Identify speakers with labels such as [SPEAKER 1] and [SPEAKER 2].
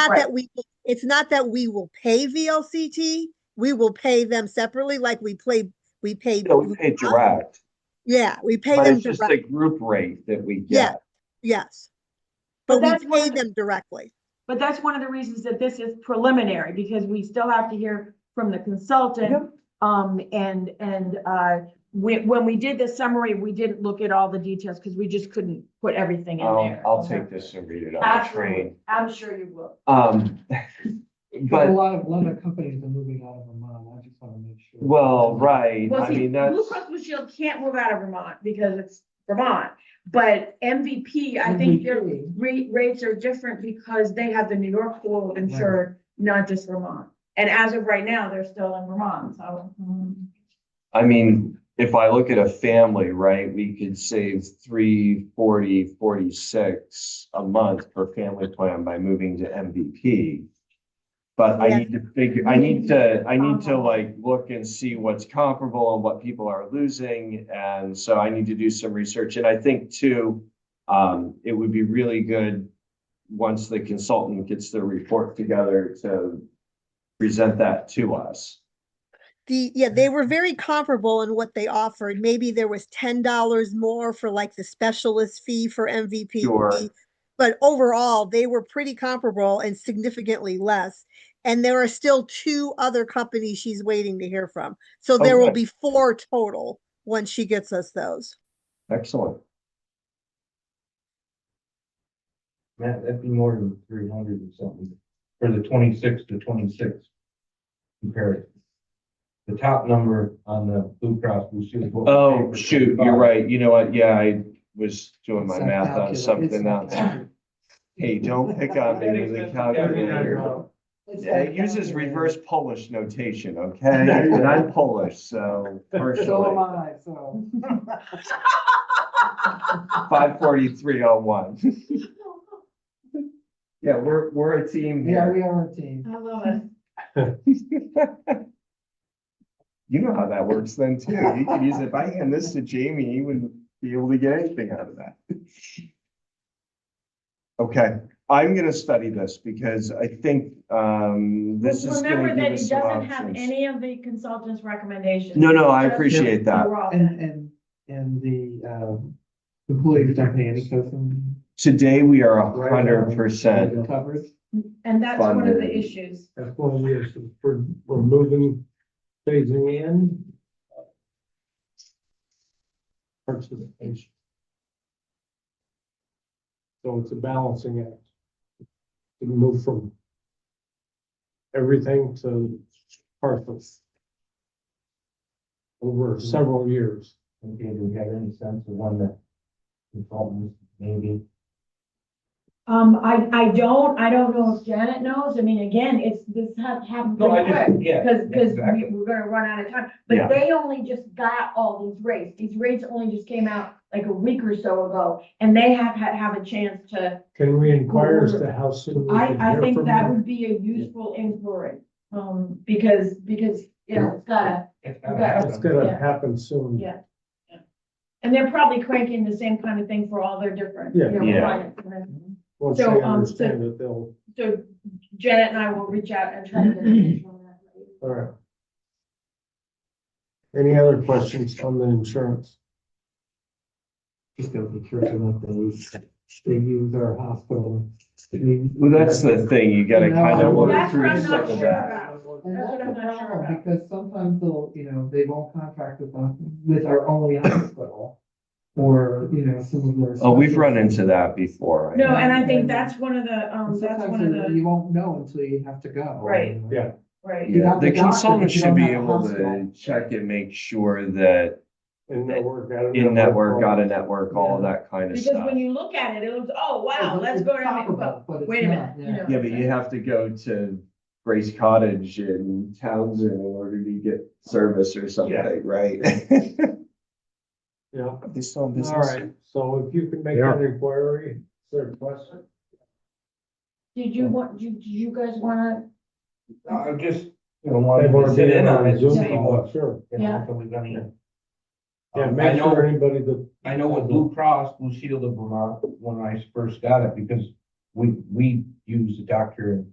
[SPEAKER 1] not
[SPEAKER 2] Right.
[SPEAKER 1] that we, it's not that we will pay VLCT, we will pay them separately, like we played, we paid.
[SPEAKER 3] No, we pay direct,
[SPEAKER 1] Yeah, we pay
[SPEAKER 3] but
[SPEAKER 1] them
[SPEAKER 3] it's just
[SPEAKER 1] direct,
[SPEAKER 3] a group rate that we
[SPEAKER 1] Yeah.
[SPEAKER 3] get.
[SPEAKER 1] yes.
[SPEAKER 2] But
[SPEAKER 1] But
[SPEAKER 2] that's
[SPEAKER 1] we
[SPEAKER 2] one
[SPEAKER 1] pay
[SPEAKER 2] of the-
[SPEAKER 1] them directly,
[SPEAKER 2] But that's one of the reasons that this is preliminary, because we still have to hear from the consultant. Um, and, and, uh, when, when we did the summary, we didn't look at all the details because we just couldn't put everything in
[SPEAKER 3] Um,
[SPEAKER 2] there.
[SPEAKER 3] I'll take this and read it on the
[SPEAKER 2] Absolutely.
[SPEAKER 3] train.
[SPEAKER 2] I'm sure you will.
[SPEAKER 3] Um,
[SPEAKER 4] But a
[SPEAKER 3] but,
[SPEAKER 4] lot of, a lot of companies are moving out of Vermont, I just wanna make sure.
[SPEAKER 3] well, right,
[SPEAKER 2] Well,
[SPEAKER 3] I
[SPEAKER 2] see,
[SPEAKER 3] mean, that's,
[SPEAKER 2] Blue Cross Blue Shield can't move out of Vermont because it's Vermont. But MVP, I think their
[SPEAKER 4] MVP.
[SPEAKER 2] rate, rates are different because they have the New York pool insured, not just Vermont. And as of right now, they're still in Vermont, so. mm.
[SPEAKER 3] I mean, if I look at a family, right, we could save three forty, forty-six a month per family plan by moving to MVP. But I
[SPEAKER 1] Yeah.
[SPEAKER 3] need to figure, I need to, I need to like look and see what's comparable and what people are losing. And so I need to do some research. And I think too, um, it would be really good once the consultant gets their report together to present that to us.
[SPEAKER 1] the, yeah, they were very comparable in what they offered, maybe there was ten dollars more for like the specialist fee for MVP.
[SPEAKER 3] Sure.
[SPEAKER 1] But overall, they were pretty comparable and significantly less, and there are still two other companies she's waiting to hear from. So there will
[SPEAKER 3] Okay.
[SPEAKER 1] be four total when she gets us those.
[SPEAKER 3] Excellent.
[SPEAKER 5] Matt, that'd be more than three hundred or something, for the twenty-six to twenty-six comparison. The top number on the Blue Cross Blue Shield. what we paid
[SPEAKER 3] Oh,
[SPEAKER 5] for
[SPEAKER 3] shoot,
[SPEAKER 5] 25.
[SPEAKER 3] you're right. You know what? Yeah, I was doing my
[SPEAKER 4] It's not
[SPEAKER 3] math on
[SPEAKER 4] calculated. It's
[SPEAKER 3] something
[SPEAKER 4] not
[SPEAKER 3] on that. Hey, don't pick on me with the calculator.
[SPEAKER 4] It's
[SPEAKER 3] Yeah, It
[SPEAKER 4] not
[SPEAKER 3] uses
[SPEAKER 4] calculated.
[SPEAKER 3] reverse Polish notation, okay? And I'm Polish, so
[SPEAKER 4] So am
[SPEAKER 3] partially.
[SPEAKER 4] I, so.
[SPEAKER 3] Five forty-three oh one. Yeah, we're, we're a team
[SPEAKER 4] Yeah,
[SPEAKER 3] here.
[SPEAKER 4] we are a team.
[SPEAKER 2] I love it.
[SPEAKER 3] You know how that works then too. You could use, if I hand this to Jamie, he wouldn't be able to get anything out of that. Okay, I'm gonna study this because I think, um, this is gonna
[SPEAKER 2] Remember
[SPEAKER 3] give
[SPEAKER 2] that
[SPEAKER 3] us
[SPEAKER 2] it
[SPEAKER 3] some
[SPEAKER 2] doesn't have
[SPEAKER 3] options.
[SPEAKER 2] any of the consultants' recommendations.
[SPEAKER 3] No, no, I
[SPEAKER 2] Just
[SPEAKER 3] appreciate that.
[SPEAKER 2] raw.
[SPEAKER 4] And, and, and the, um, employees don't pay any custom.
[SPEAKER 3] Today, we are a hundred percent.
[SPEAKER 4] Covered.
[SPEAKER 2] And that's one of the
[SPEAKER 3] Funding.
[SPEAKER 2] issues.
[SPEAKER 6] That's why we are, we're, we're moving, phasing in. Participation. So it's a balancing act. To move from. Everything to parcels. Over several years.
[SPEAKER 5] Okay, do we have any sense of when the consultants maybe?
[SPEAKER 2] Um, I, I don't, I don't know if Janet knows. I mean, again, it's, this ha- happened pretty quick.
[SPEAKER 5] yeah.
[SPEAKER 2] Because, because
[SPEAKER 5] exactly.
[SPEAKER 2] we're gonna run out of time,
[SPEAKER 3] Yeah.
[SPEAKER 2] but they only just got all these rates, these rates only just came out like a week or so ago, and they have, had have a chance to,
[SPEAKER 6] Can we inquire as to how soon? we can
[SPEAKER 2] I, I
[SPEAKER 6] hear
[SPEAKER 2] think
[SPEAKER 6] from
[SPEAKER 2] that
[SPEAKER 6] them?
[SPEAKER 2] would be a useful inquiry. Um, because, because, you know, it's gotta,
[SPEAKER 5] It's not
[SPEAKER 2] Yeah.
[SPEAKER 6] It's gonna
[SPEAKER 2] Yeah.
[SPEAKER 6] happen soon.
[SPEAKER 2] Yeah. and they're probably cranking the same kind of thing for all their different, you
[SPEAKER 6] Yeah.
[SPEAKER 2] know,
[SPEAKER 3] Yeah.
[SPEAKER 2] clients. and then-
[SPEAKER 6] Once they
[SPEAKER 2] So, um, so-
[SPEAKER 6] understand it, they'll,
[SPEAKER 2] So Janet and I will reach out and try to get information on that.
[SPEAKER 6] all right. Any other questions on the insurance?
[SPEAKER 4] Just gotta be careful not to, they use our hospital.
[SPEAKER 3] Well, that's the thing. You gotta kind of work
[SPEAKER 2] That's what
[SPEAKER 3] through
[SPEAKER 2] I'm
[SPEAKER 3] some
[SPEAKER 2] not
[SPEAKER 3] of
[SPEAKER 2] sure
[SPEAKER 3] that.
[SPEAKER 2] about.
[SPEAKER 4] And
[SPEAKER 2] That's
[SPEAKER 4] that's
[SPEAKER 2] what
[SPEAKER 4] the
[SPEAKER 2] I'm not sure
[SPEAKER 4] problem,
[SPEAKER 2] about.
[SPEAKER 4] because sometimes they'll, you know, they won't contract with us, with our only hospital. Or, you know, some of their.
[SPEAKER 3] Oh, we've run
[SPEAKER 4] specialties.
[SPEAKER 3] into that before. I
[SPEAKER 2] No,
[SPEAKER 3] know.
[SPEAKER 2] and I think that's one of the, um,
[SPEAKER 4] And
[SPEAKER 2] that's one of
[SPEAKER 4] Sometimes
[SPEAKER 2] the,
[SPEAKER 4] you won't know until you have to go.
[SPEAKER 2] Right.
[SPEAKER 6] Yeah.
[SPEAKER 2] right.
[SPEAKER 4] you
[SPEAKER 3] Yeah,
[SPEAKER 4] have
[SPEAKER 3] The
[SPEAKER 4] the doctor, but
[SPEAKER 3] consultant
[SPEAKER 4] you
[SPEAKER 3] should
[SPEAKER 4] don't
[SPEAKER 3] be
[SPEAKER 4] have the
[SPEAKER 3] able to
[SPEAKER 4] hospital.
[SPEAKER 3] check and make sure that
[SPEAKER 6] In network, out of
[SPEAKER 3] in network, out of
[SPEAKER 6] network.
[SPEAKER 3] network, all of that kind of
[SPEAKER 2] Because
[SPEAKER 3] stuff.
[SPEAKER 2] when you look at it, it looks, oh, wow,
[SPEAKER 4] It's-
[SPEAKER 2] let's
[SPEAKER 4] it's
[SPEAKER 2] go down.
[SPEAKER 4] comparable,
[SPEAKER 2] well,
[SPEAKER 4] but it's
[SPEAKER 2] Wait a minute,
[SPEAKER 4] not,
[SPEAKER 2] you
[SPEAKER 4] yeah.
[SPEAKER 2] know.
[SPEAKER 3] Yeah, but you have to go to Grace Cottage in Townsend in order to get service or something, right?
[SPEAKER 6] Yeah,
[SPEAKER 3] They still in
[SPEAKER 6] all
[SPEAKER 3] business?
[SPEAKER 6] right, so if you can make that inquiry, is there a question?
[SPEAKER 2] Did you want, do, do you guys wanna,
[SPEAKER 5] No, I'm just, you know, wanting to sit in on it, and
[SPEAKER 6] Zoom
[SPEAKER 5] see
[SPEAKER 6] call,
[SPEAKER 5] what,
[SPEAKER 6] Sure,
[SPEAKER 5] you know,
[SPEAKER 2] Yeah.
[SPEAKER 5] until we've done it.
[SPEAKER 6] yeah,
[SPEAKER 5] Um, I
[SPEAKER 6] make
[SPEAKER 5] know-
[SPEAKER 6] sure anybody that.
[SPEAKER 5] I know with Blue Cross Blue Shield of Vermont, when I first got it, because we, we use the doctor in